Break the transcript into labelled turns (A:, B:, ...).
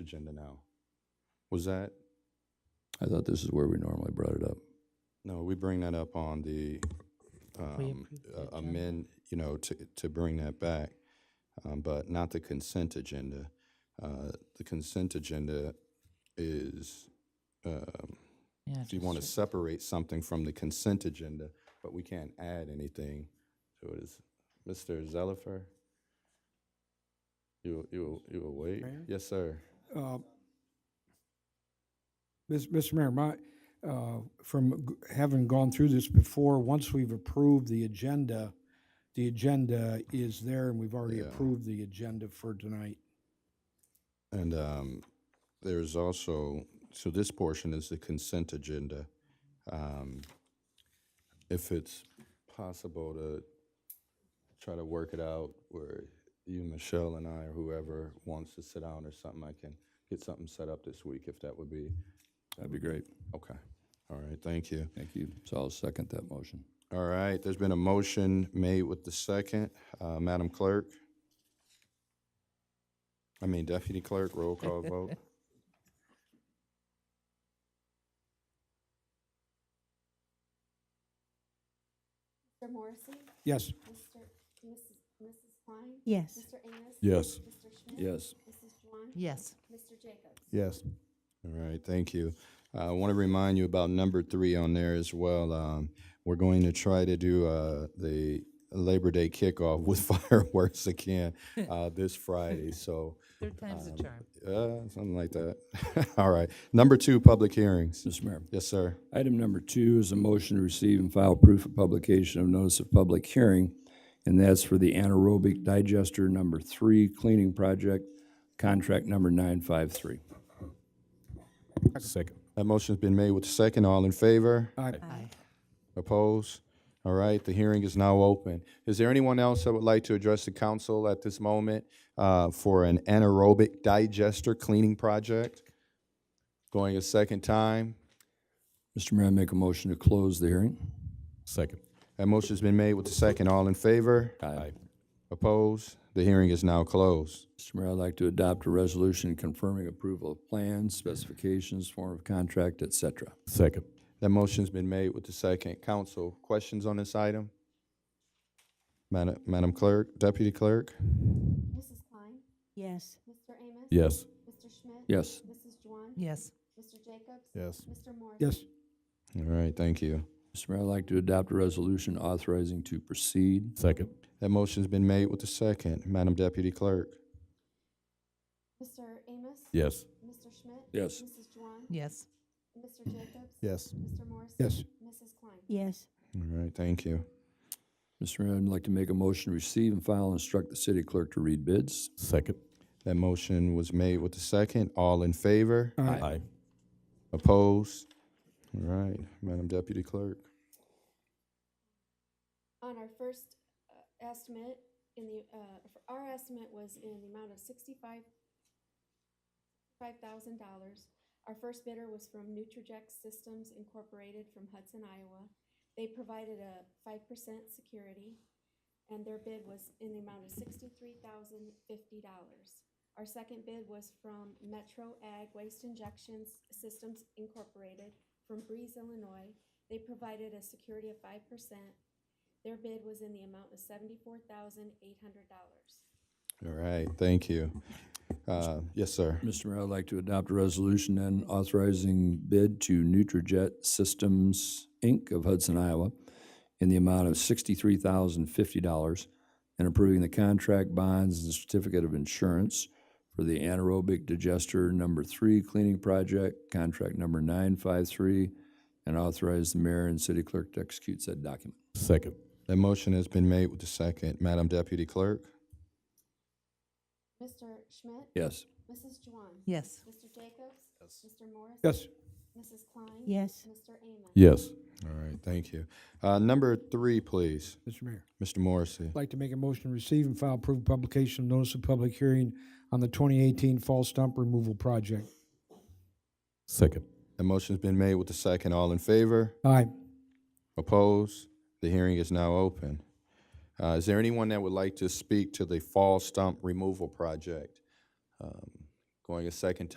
A: agenda now. Was that,
B: I thought this is where we normally brought it up.
A: no, we bring that up on the,
C: We
A: um,
C: approve
A: uh,
C: the agenda.
A: amend, you know, to, to bring that back, um, but not the consent agenda. Uh, the consent agenda is, um,
C: Yeah,
A: if you want to
C: just-
A: separate something from the consent agenda, but we can't add anything to it, is Mr. Zellifer? You, you, you awake?
D: Mayor?
A: Yes, sir.
D: Uh, Mis- Mr. Mayor, my, uh, from g- having gone through this before, once we've approved the agenda, the agenda is there and we've already
A: Yeah.
D: approved the agenda for tonight.
A: And um, there's also, so this portion is the consent agenda. Um, If it's possible to try to work it out where you, Michelle, and I, or whoever wants to sit down or something, I can get something set up this week if that would be,
B: That'd be great.
A: okay. All right, thank you.
B: Thank you. So I'll second that motion.
A: All right, there's been a motion made with the second. Uh, Madam Clerk? I mean Deputy Clerk, roll call vote.
E: Mr. Morrissey?
D: Yes,
E: Mr. Mrs. Mrs. Klein?
F: Yes.
E: Mr. Amos?
B: Yes.
E: Mr. Schmidt?
B: Yes.
E: Mrs. Juwan?
C: Yes,
E: Mr. Jacobs?
A: Yes. All right, thank you. Uh, I want to remind you about number three on there as well. Um, We're going to try to do uh, the Labor Day kickoff with fireworks again uh, this Friday, so,
C: third time's a charm.
A: uh, something like that. All right, number two, public hearings.
B: Mr. Mayor,
A: Yes, sir.
B: item number two is a motion to receive and file proof of publication of notice of public hearing, and that's for the anaerobic digester number three cleaning project, contract number 953.
G: Second.
A: That motion's been made with the second. All in favor?
C: Aye.
A: Oppose? All right, the hearing is now open. Is there anyone else that would like to address the council at this moment uh, for an anaerobic digester cleaning project? Going a second time?
B: Mr. Mayor, I make a motion to close the hearing.
G: Second.
A: That motion's been made with the second. All in favor?
B: Aye.
A: Oppose? The hearing is now closed.
B: Mr. Mayor, I'd like to adopt a resolution confirming approval of plans, specifications, form of contract, et cetera.
G: Second.
A: That motion's been made with the second. Council, questions on this item? Madam Madam Clerk, Deputy Clerk?
E: Mrs. Klein?
F: Yes.
E: Mr. Amos?
G: Yes.
E: Mr. Schmidt?
B: Yes.
E: Mrs. Juwan?
C: Yes,
E: Mr. Jacobs?
G: Yes.
E: Mr. Morrissey?
D: yes,
A: All right, thank you.
B: Mr. Mayor, I'd like to adopt a resolution authorizing to proceed.
G: Second.
A: That motion's been made with the second. Madam Deputy Clerk?
E: Mr. Amos?
G: Yes.
E: Mr. Schmidt?
B: Yes.
E: Mrs. Juwan?
C: yes,
E: Mr. Jacobs?
G: Yes.
E: Mr. Morrissey?
D: yes,
E: Mrs. Klein?
F: Yes.
A: All right, thank you.
B: Mr. Mayor, I'd like to make a motion to receive and file and instruct the city clerk to read bids.
G: Second.
A: That motion was made with the second. All in favor?
D: uh,
G: Aye.
A: Opposed? All right, Madam Deputy Clerk.
E: On our first uh, estimate, in the, uh, for- our estimate was in the amount of sixty-five, five thousand dollars. Our first bidder was from Nutraject Systems Incorporated from Hudson, Iowa. They provided a five percent security, and their bid was in the amount of sixty-three thousand fifty dollars. Our second bid was from Metro Ag Waste Injections Systems Incorporated from Breeze, Illinois. They provided a security of five percent. Their bid was in the amount of seventy-four thousand eight hundred dollars.
A: All right, thank you. Uh, Yes, sir.
B: Mr. Mayor, I'd like to adopt a resolution then authorizing bid to Nutrijet Systems, Inc. of Hudson, Iowa, in the amount of sixty-three thousand fifty dollars and approving the contract bonds and certificate of insurance for the anaerobic digester number three cleaning project, contract number nine-five-three, and authorize the mayor and city clerk to execute said document.
G: Second.
A: That motion has been made with the second. Madam Deputy Clerk?
E: Mr. Schmidt?
B: Yes.
E: Mrs. Juwan?
C: yes.
E: Mr. Jacobs? Mr. Morris?
D: yes.
E: Mrs. Klein?
F: Yes.
E: Mr. Amos?
G: Yes.
A: All right, thank you. Uh, Number three, please.
D: Mr. Mayor,
A: Mr. Morrissey.
D: I'd like to make a motion to receive and file proof of publication of notice of public hearing on the 2018 Fall Stump Removal Project.
G: Second.
A: The motion's been made with the second. All in favor?
D: Aye,
A: Opposed? The hearing is now open. Uh, Is there anyone that would like to speak to the fall stump removal project? Um, going a second time.